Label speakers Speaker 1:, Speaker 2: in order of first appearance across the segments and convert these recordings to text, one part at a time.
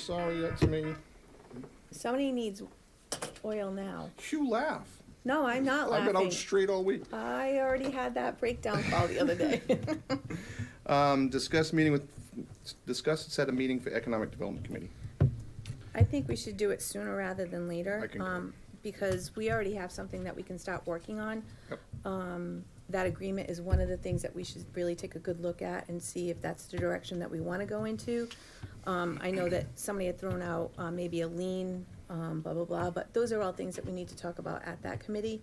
Speaker 1: Sorry, that's me.
Speaker 2: Somebody needs oil now.
Speaker 1: You laugh.
Speaker 2: No, I'm not
Speaker 1: I've been
Speaker 2: laughing.
Speaker 1: out straight all week.
Speaker 2: I already had that breakdown call the other day.
Speaker 1: Um, discuss meeting with, discuss and set a meeting for Economic Development Committee.
Speaker 2: I think we should do it sooner rather than later.
Speaker 1: I concur.
Speaker 2: um, Because we already have something that we can start working on.
Speaker 1: Yep.
Speaker 2: Um, That agreement is one of the things that we should really take a good look at and see if that's the direction that we want to go into. Um, I know that somebody had thrown out uh, maybe a lien, um, blah, blah, blah, but those are all things that we need to talk about at that committee.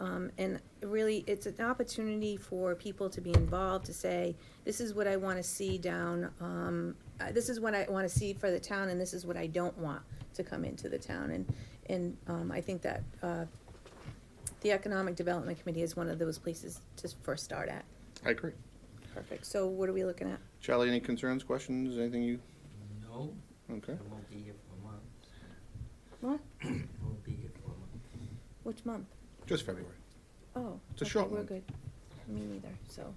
Speaker 2: Um, and really, it's an opportunity for people to be involved, to say, this is what I want to see down, um, uh, this is what I want to see for the town, and this is what I don't want to come into the town. And, and, um, I think that, uh, the Economic Development Committee is one of those places to first start at.
Speaker 1: I agree.
Speaker 2: Perfect. So what are we looking at?
Speaker 1: Charlie, any concerns, questions, anything you,
Speaker 3: No, I
Speaker 1: okay?
Speaker 3: won't be here for a month.
Speaker 2: What?
Speaker 3: I won't be here for a month.
Speaker 2: Which month?
Speaker 1: Just February.
Speaker 2: Oh.
Speaker 1: It's a
Speaker 2: okay,
Speaker 1: short
Speaker 2: We're
Speaker 1: one.
Speaker 2: good. Me neither, so.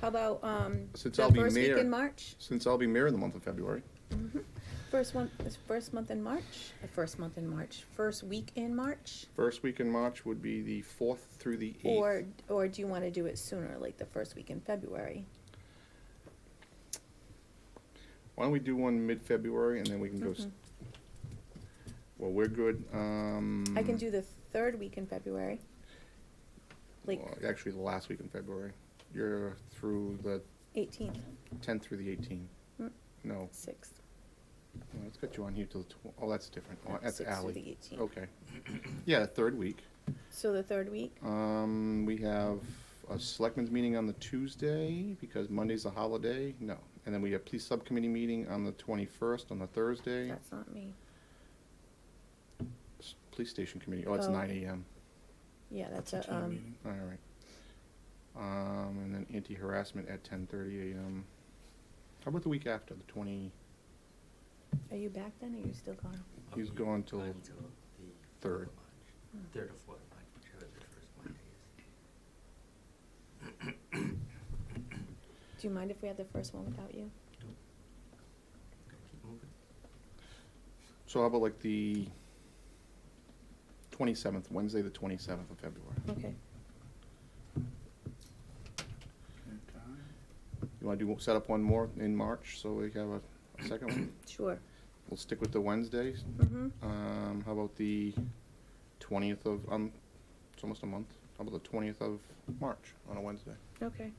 Speaker 2: How about, um,
Speaker 1: Since
Speaker 2: the
Speaker 1: I'll be
Speaker 2: first week
Speaker 1: mayor.
Speaker 2: in March?
Speaker 1: Since I'll be mayor in the month of February,
Speaker 2: Mhm. First one, this first month in March, the first month in March, first week in March?
Speaker 1: first week in March would be the fourth through the eighth.
Speaker 2: Or, or do you want to do it sooner, like the first week in February?
Speaker 1: Why don't we do one mid-February and then we can go, s-
Speaker 2: Mhm.
Speaker 1: well, we're good, um.
Speaker 2: I can do the third week in February. Like
Speaker 1: well, Actually, the last week in February. You're through the
Speaker 2: eighteenth,
Speaker 1: tenth through the eighteenth.
Speaker 2: Mm.
Speaker 1: No,
Speaker 2: sixth.
Speaker 1: no, it's got you on here till the tw- oh, that's different. Oh,
Speaker 2: not
Speaker 1: that's
Speaker 2: sixth through
Speaker 1: alley.
Speaker 2: the 18th.
Speaker 1: Okay. Yeah, third week.
Speaker 2: So the third week?
Speaker 1: Um, we have a selectmen's meeting on the Tuesday because Monday's a holiday. No. And then we have police subcommittee meeting on the twenty-first, on the Thursday.
Speaker 2: That's not me.
Speaker 1: S- Police station committee. Oh, it's
Speaker 2: Oh.
Speaker 1: nine AM.
Speaker 2: Yeah, that's a, um,
Speaker 1: All right. Um, and then anti-harassment at ten thirty AM. How about the week after, the twenty,
Speaker 2: are you back then or are you still gone?
Speaker 3: I'll
Speaker 1: He's
Speaker 3: be
Speaker 1: gone till
Speaker 3: until the
Speaker 1: third.
Speaker 3: of March. Third or fourth of March, whichever the first Monday is.
Speaker 2: Do you mind if we have the first one without you?
Speaker 3: Gotta keep moving.
Speaker 1: so how about like the twenty-seventh, Wednesday, the twenty-seventh of February?
Speaker 2: Okay.
Speaker 1: Mm-hmm. You want to do, set up one more in March, so we have a a second one?
Speaker 2: Sure.
Speaker 1: We'll stick with the Wednesdays.
Speaker 2: Mm-hmm.
Speaker 1: Um, how about the twentieth of, um, it's almost a month. How about the twentieth of March on a Wednesday?
Speaker 2: Okay.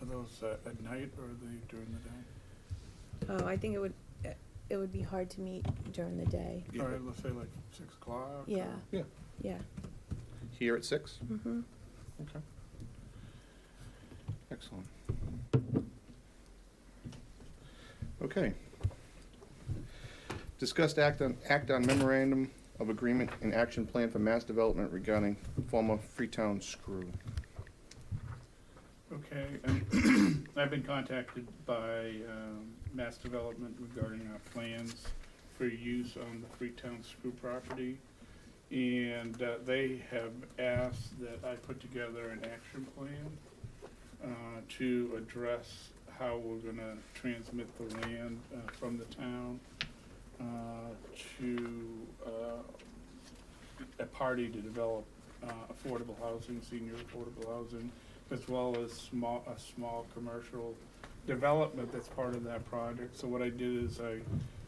Speaker 4: Are those uh, at night or are they during the day?
Speaker 2: Oh, I think it would, eh, it would be hard to meet during the day.
Speaker 1: Yeah.
Speaker 4: Or let's say like six o'clock?
Speaker 2: Yeah,
Speaker 1: Yeah,
Speaker 2: yeah.
Speaker 1: here at six?
Speaker 2: Mm-hmm.
Speaker 1: Okay. Excellent. Okay. Discussed act on, act on memorandum of agreement and action plan for mass development regarding former Freetown Screw.
Speaker 4: or- Okay, and I've been contacted by um, Mass Development regarding our plans for use on the Freetown Screw property. And uh, they have asked that I put together an action plan uh, to address how we're gonna transmit the land uh, from the town uh, to uh, a party to develop uh, affordable housing, senior affordable housing, as well as small, a small commercial development that's part of that project. So what I did is I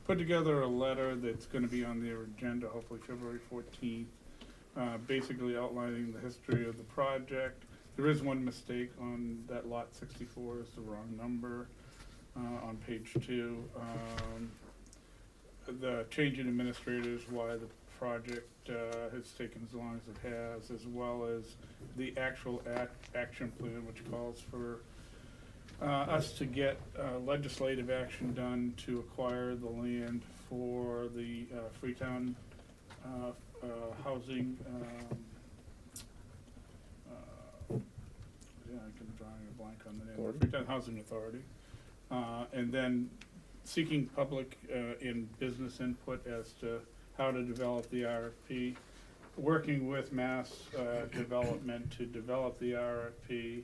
Speaker 4: put together a letter that's gonna be on their agenda, hopefully February fourteenth, uh, basically outlining the history of the project. There is one mistake on that lot sixty-four, it's the wrong number, uh, on page two. Um, the change in administrators, why the project, uh, has taken as long as it has, as well as the actual act, action plan, which calls for uh, us to get uh, legislative action done to acquire the land for the uh, Freetown uh, uh, Housing, um, uh, yeah, I can draw a blank on the name,
Speaker 1: Authority?
Speaker 4: Freetown Housing Authority. Uh, And then seeking public uh, and business input as to how to develop the RFP working with Mass uh, Development to develop the RFP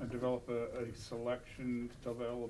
Speaker 4: uh, develop a, a selection, develop